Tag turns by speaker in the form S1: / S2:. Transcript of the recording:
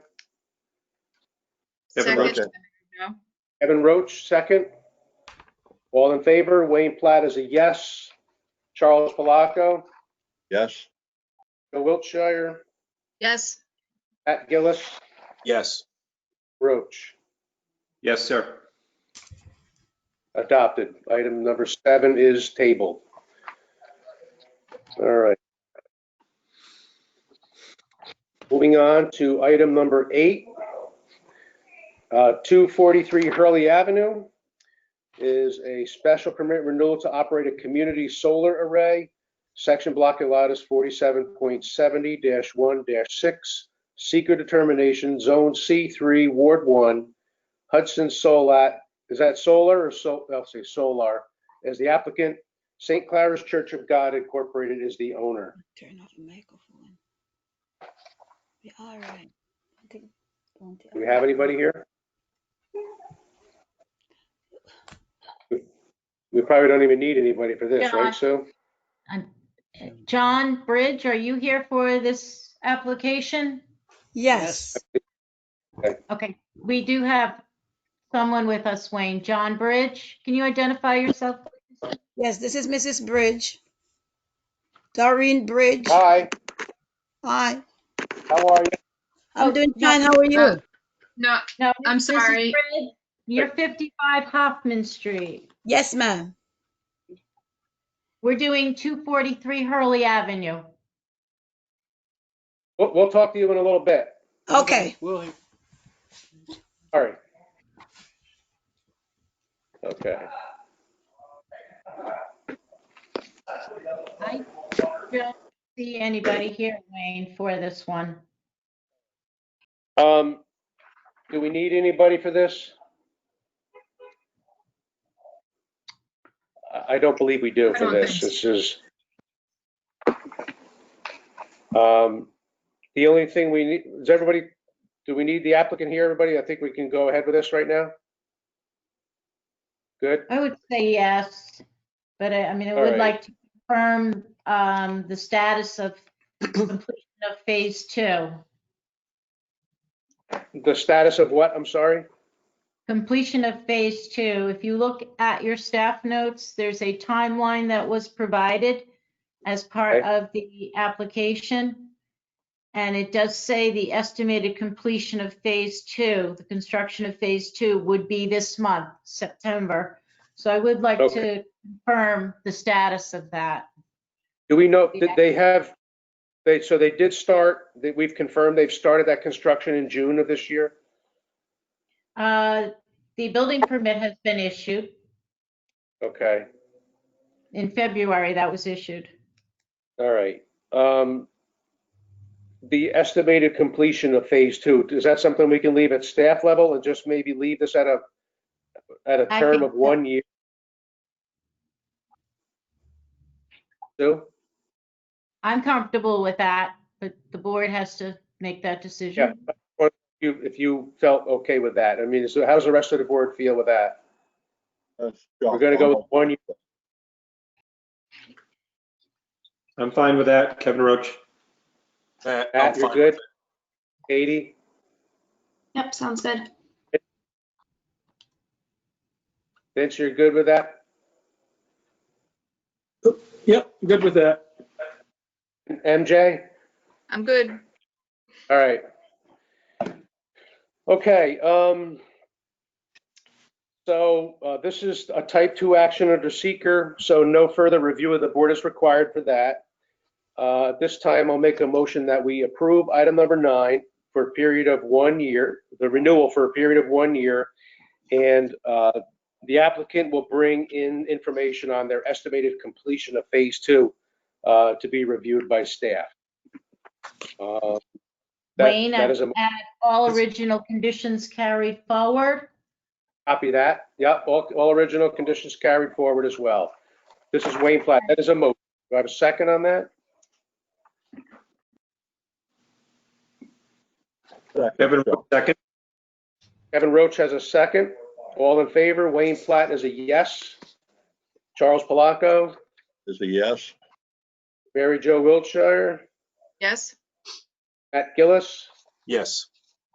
S1: Kevin Roach.
S2: Second.
S1: No.
S2: Kevin Roach, second. All in favor, Wayne Platt is a yes. Charles Palaco,
S3: Yes.
S2: Bill Wiltshire,
S1: Yes,
S2: Pat Gillis,
S4: Yes.
S2: Roach.
S4: Yes, sir.
S2: Adopted. Item number seven is tabled. All right. Moving on to item number eight. Uh, 243 Hurley Avenue is a special permit renewal to operate a community solar array. Section block allowed is 47.70-1-6. Seeker determination, Zone C3, Ward 1, Hudson Solat, is that solar or so, I'll say solar, as the applicant, St. Clara's Church of God Incorporated is the owner.
S5: Turn off the microphone. We are right. I think- don't think-
S2: Do we have anybody here? We probably don't even need anybody for this,
S6: Yeah.
S2: right, Sue?
S6: Um, uh, John Bridge, are you here for this application?
S5: Yes,
S6: Okay, we do have someone with us, Wayne. John Bridge, can you identify yourself?
S5: yes, this is Mrs. Bridge. Doreen Bridge.
S2: Hi,
S5: Hi,
S2: how are you?
S5: I'm
S6: Oh,
S5: doing
S6: no,
S5: fine. How are
S1: uh,
S5: you?
S1: no,
S6: No,
S1: I'm
S6: Mrs.
S1: sorry.
S6: Bridge, You're 55 Hoffman Street.
S5: Yes, ma'am.
S6: We're doing 243 Hurley Avenue.
S2: We'll, we'll talk to you in a little bit.
S5: Okay.
S2: All right. Okay.
S6: I don't see anybody here, Wayne, for this one.
S2: Um, do we need anybody for this? I, I don't believe we
S1: I
S2: do for
S1: don't
S2: this.
S1: think
S2: This is. Um, the only thing we need, is everybody, do we need the applicant here, everybody? I think we can go ahead with this right now. Good,
S6: I would say yes, but I, I mean, I
S2: All right.
S6: would like to confirm um, the status of completion of phase two.
S2: the status of what, I'm sorry?
S6: Completion of phase two, if you look at your staff notes, there's a timeline that was provided as part
S2: Okay.
S6: of the application. And it does say the estimated completion of phase two, the construction of phase two would be this month, September. So I would like
S2: Okay.
S6: to confirm the status of that.
S2: Do we know,
S6: Yeah.
S2: that they have, they, so they did start, that we've confirmed they've started that construction in June of this year?
S6: Uh, The building permit has been issued.
S2: Okay.
S6: In February, that was issued.
S2: All right. Um, The estimated completion of phase two, is that something we can leave at staff level and just maybe leave this at a, at a
S6: I
S2: term of
S6: think
S2: one year? Sue?
S6: I'm comfortable with that, but the board has to make that
S2: Yeah.
S6: decision.
S2: Or if you, if you felt okay with that. I mean, so how does the rest of the board feel with that? We're gonna go with one year.
S4: I'm fine with that. Kevin Roach.
S2: Pat, Uh, you're good? Katie?
S1: Yep, sounds good.
S2: Vince, you're good with that?
S4: Yep, good with that.
S2: MJ?
S1: I'm good.
S2: All right. Okay, um, so, uh, this is a type two action under seeker, so no further review of the board is required for that. Uh, at this time, I'll make a motion that we approve item number nine for a period of one year, the renewal for a period of one year. And, uh, the applicant will bring in information on their estimated completion of phase two, uh, to be reviewed by staff. Uh, that-
S6: Wayne,
S2: that
S6: I'd
S2: is a-
S6: add all original conditions carried forward.
S2: Copy that. Yep, all, all original conditions carried forward as well. This is Wayne Platt. That is a motion. Do I have a second on that?
S4: Kevin Roach, second.
S2: Kevin Roach has a second. All in favor? Wayne Platt is a yes. Charles Palaco,
S3: Is a yes.
S2: Mary Jo Wiltshire,
S1: Yes,
S2: Matt Gillis,
S4: Yes.